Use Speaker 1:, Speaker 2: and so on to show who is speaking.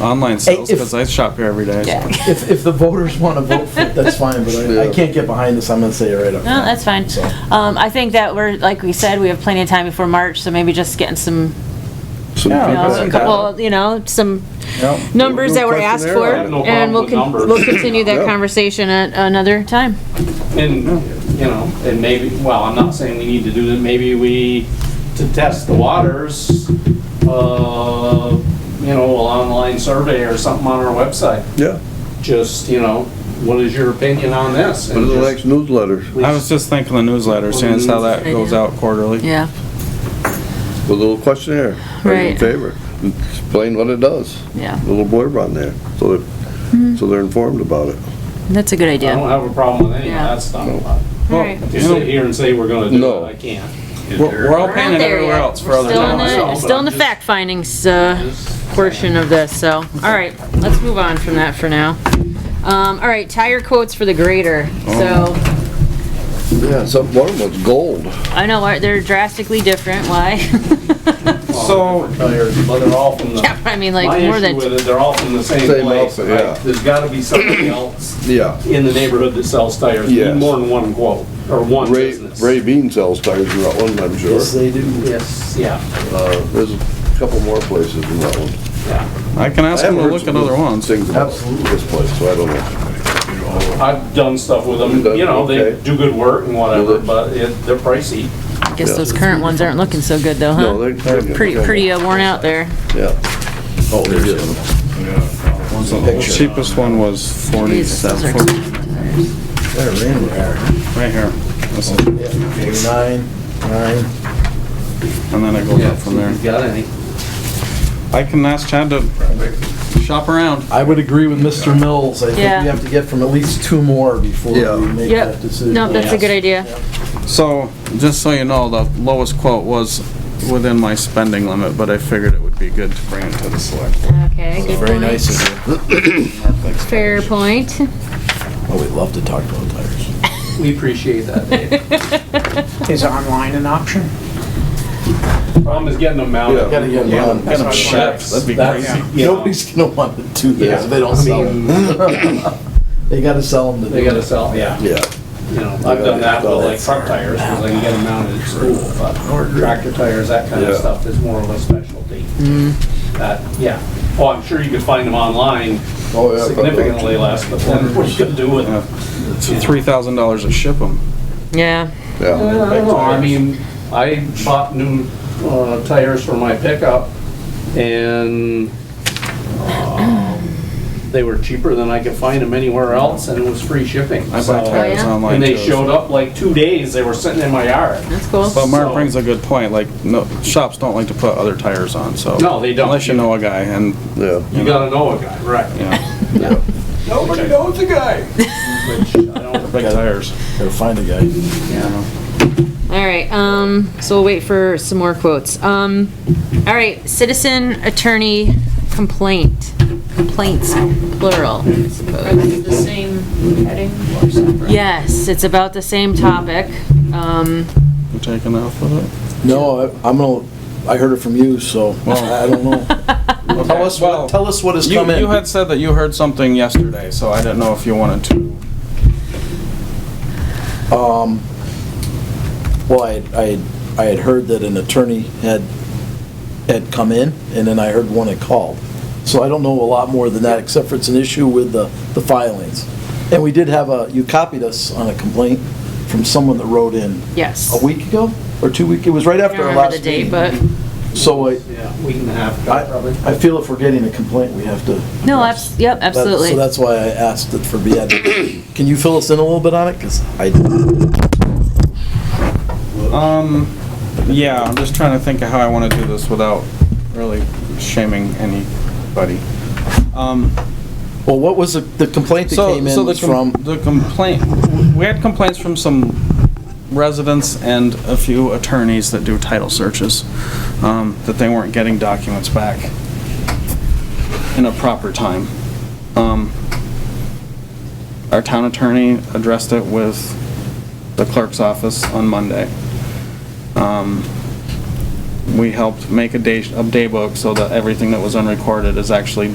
Speaker 1: online sales,
Speaker 2: if-
Speaker 1: because I shop here every day. so-
Speaker 3: Yeah.
Speaker 2: If, if the voters want to vote for it, that's fine, but I, I can't get behind this, I'm gonna say it right up.
Speaker 3: No,
Speaker 2: front.
Speaker 3: that's fine.
Speaker 2: So,
Speaker 3: Um, I think that we're, like we said, we have plenty of time before March, so maybe just getting some,
Speaker 4: Some
Speaker 2: Yeah,
Speaker 3: you know,
Speaker 2: that's
Speaker 3: a
Speaker 4: feedback.
Speaker 3: couple, you know, some
Speaker 2: yeah.
Speaker 3: numbers that were
Speaker 4: question
Speaker 3: asked
Speaker 4: there.
Speaker 3: for.
Speaker 4: I have
Speaker 5: no
Speaker 3: And
Speaker 5: problem
Speaker 3: we'll,
Speaker 5: with
Speaker 3: con-
Speaker 5: numbers.
Speaker 3: we'll continue that
Speaker 4: Yeah.
Speaker 3: conversation at another time.
Speaker 5: And, you know, and maybe, well, I'm not saying we need to do that, maybe we, to test the waters, uh, you know, an online survey or something on our website.
Speaker 4: Yeah,
Speaker 5: Just, you know, what is your opinion on this?
Speaker 4: one
Speaker 5: And
Speaker 4: of the
Speaker 5: just-
Speaker 4: next newsletters.
Speaker 1: I was just thinking the newsletter, seeing as how that goes out quarterly.
Speaker 3: Yeah.
Speaker 4: With a little questionnaire. Are you in
Speaker 3: Right.
Speaker 4: favor? Explain what it does.
Speaker 3: Yeah.
Speaker 4: A Little blurb on there, so
Speaker 3: Hmm.
Speaker 4: that, so they're informed about it.
Speaker 3: That's a good
Speaker 5: I don't
Speaker 3: idea.
Speaker 5: have a problem with any of
Speaker 3: Yeah.
Speaker 5: that stuff.
Speaker 3: All right.
Speaker 5: To sit here and say we're gonna do
Speaker 4: No.
Speaker 5: it, I can't.
Speaker 1: We're we're all paying it everywhere else for other
Speaker 3: Still in
Speaker 1: towns.
Speaker 3: the,
Speaker 5: myself,
Speaker 3: still in the
Speaker 5: but I'm
Speaker 3: fact findings, uh,
Speaker 5: Just-
Speaker 3: portion of this, so, all right, let's move on from that for now. Um, all right, tire quotes for the grader, so,
Speaker 4: Yeah, some, one of them was gold.
Speaker 3: I know, why- they're drastically different, why?
Speaker 1: So,
Speaker 5: But they're all from the.
Speaker 3: Yeah, but I mean,
Speaker 5: My
Speaker 3: like, more
Speaker 5: issue
Speaker 3: than,
Speaker 5: with it, they're all from the same
Speaker 4: Same
Speaker 5: place.
Speaker 4: outfit, yeah.
Speaker 5: right? There's gotta be somebody else
Speaker 4: Yeah.
Speaker 5: in the neighborhood that sells tires, You
Speaker 4: Yes.
Speaker 5: need more than one quote, or one
Speaker 4: Ray,
Speaker 5: business.
Speaker 4: Ray Bean sells tires in Rutland, I'm sure.
Speaker 2: Yes, they do.
Speaker 5: Yes, yeah,
Speaker 4: Uh, there's a couple more places in Rutland.
Speaker 5: yeah.
Speaker 1: I can ask them to look at other ones.
Speaker 4: Things about
Speaker 2: Absolutely.
Speaker 4: this place, so I don't
Speaker 3: Uh-huh.
Speaker 4: know.
Speaker 5: I've done stuff with them,
Speaker 4: You've done-
Speaker 5: you know, they
Speaker 4: okay.
Speaker 5: do good work and whatever,
Speaker 4: Mhm.
Speaker 5: but it, they're pricey.
Speaker 3: I guess
Speaker 4: yeah.
Speaker 3: those current ones aren't looking so good though,
Speaker 4: No,
Speaker 3: huh?
Speaker 4: they- they're.
Speaker 3: Pretty, pretty uh, worn out there.
Speaker 4: Yeah. Oh, there is.
Speaker 1: The cheapest one was
Speaker 3: Jeez, those are
Speaker 1: forty-seven,
Speaker 2: They're in there.
Speaker 1: right here. This is-
Speaker 2: Nine, nine.
Speaker 1: And then it goes up from there.
Speaker 5: If you got any.
Speaker 1: I can ask Chad to shop around.
Speaker 2: I would agree with Mr. Mills, I think we
Speaker 3: Yeah.
Speaker 2: have to get from at least two more before
Speaker 4: Yeah.
Speaker 2: we make
Speaker 3: Yep.
Speaker 2: that decision.
Speaker 3: No, that's a good idea.
Speaker 1: So, just so you know, the lowest quote was within my spending limit, but I figured it would be good to bring it to the select. board.
Speaker 3: Okay, good
Speaker 2: Very nice
Speaker 3: point.
Speaker 2: of you.
Speaker 3: Fair point.
Speaker 2: Oh, we love to talk about tires.
Speaker 5: We appreciate that, Dave.
Speaker 6: Is online an option?
Speaker 5: Problem is getting them mounted.
Speaker 4: Yeah.
Speaker 2: Gotta get
Speaker 1: Yeah,
Speaker 2: them
Speaker 1: get
Speaker 2: on.
Speaker 1: them shipped, that'd be
Speaker 2: That's-
Speaker 1: crazy.
Speaker 5: Yeah.
Speaker 2: Nobody's gonna want to do that if they don't sell them. They gotta sell them to
Speaker 5: They
Speaker 2: do
Speaker 5: gotta
Speaker 2: it.
Speaker 5: sell, yeah,
Speaker 4: Yeah.
Speaker 5: you know, I've done that with like truck tires, because I can get them mounted at school, but tractor tires, that kind of
Speaker 4: Yeah.
Speaker 5: stuff is more of a specialty. That, yeah, oh, I'm sure you could find them online
Speaker 4: Oh, yeah.
Speaker 5: significantly less, but then what you gonna do with them?
Speaker 1: Three thousand dollars to ship them.
Speaker 3: Yeah,
Speaker 5: I
Speaker 4: Yeah.
Speaker 5: don't know, I mean, I bought new, uh, tires for my pickup and, um, they were cheaper than I could find them anywhere else and it was free shipping.
Speaker 1: I buy
Speaker 5: so-
Speaker 1: tires
Speaker 3: yeah?
Speaker 1: online
Speaker 5: And they
Speaker 1: too.
Speaker 5: showed up like two days, they were sitting in my yard.
Speaker 3: that's cool.
Speaker 1: But Mark
Speaker 5: so-
Speaker 1: brings a good point, like, no, shops don't like to put other tires on, so.
Speaker 5: No, they don't.
Speaker 1: Unless you know a guy, and,
Speaker 4: Yeah.
Speaker 5: You gotta know a guy, right?
Speaker 1: you know,
Speaker 5: Nobody knows a guy. Which I don't,
Speaker 1: big tires.
Speaker 2: Gotta find a guy.
Speaker 3: All right, um, so we'll wait for some more quotes. Um, all right, citizen attorney complaint, complaints plural, I suppose.
Speaker 7: the same heading or separate?
Speaker 3: Yes, it's about the same topic. Um,
Speaker 1: You taking off with it?
Speaker 2: No, I- I'm gonna, I heard it from you, so I I don't know. Tell us
Speaker 1: well,
Speaker 2: what, tell us what has
Speaker 1: You,
Speaker 2: come in.
Speaker 1: you had said that you heard something yesterday, so I didn't know if you wanted to.
Speaker 2: Um, well, I, I, had- I had heard that an attorney had, had come in, and then I heard one had called. So I don't know a lot more than that, except for it's an issue with the, the filings. And we did have a, you copied us on a complaint from someone that wrote in
Speaker 3: yes.
Speaker 2: a week ago, or two week, it was right
Speaker 3: I
Speaker 2: after
Speaker 3: don't
Speaker 2: our
Speaker 3: remember the
Speaker 2: last
Speaker 3: date,
Speaker 2: meeting.
Speaker 3: but,
Speaker 2: So I,
Speaker 5: yeah, week and a half, probably.
Speaker 2: I, I feel if we're getting a complaint, we have to.
Speaker 3: no,
Speaker 2: address.
Speaker 3: abs, yep,
Speaker 2: That- So
Speaker 3: absolutely.
Speaker 2: that's why I asked it for be added. Can you fill us in a little bit on it? Because I,
Speaker 1: Um, yeah, I'm just trying to think of how I want to do this without really shaming anybody. Um,
Speaker 2: well, what was the- the complaint that
Speaker 1: so,
Speaker 2: came
Speaker 1: so
Speaker 2: in
Speaker 1: the
Speaker 2: was
Speaker 1: com-
Speaker 2: from?
Speaker 1: the complaint, we had complaints from some residents and a few attorneys that do title searches, um, that they weren't getting documents back in a proper time. Um, our town attorney addressed it with the clerk's office on Monday. Um, We helped make a day, a day book so that everything that was unrecorded is actually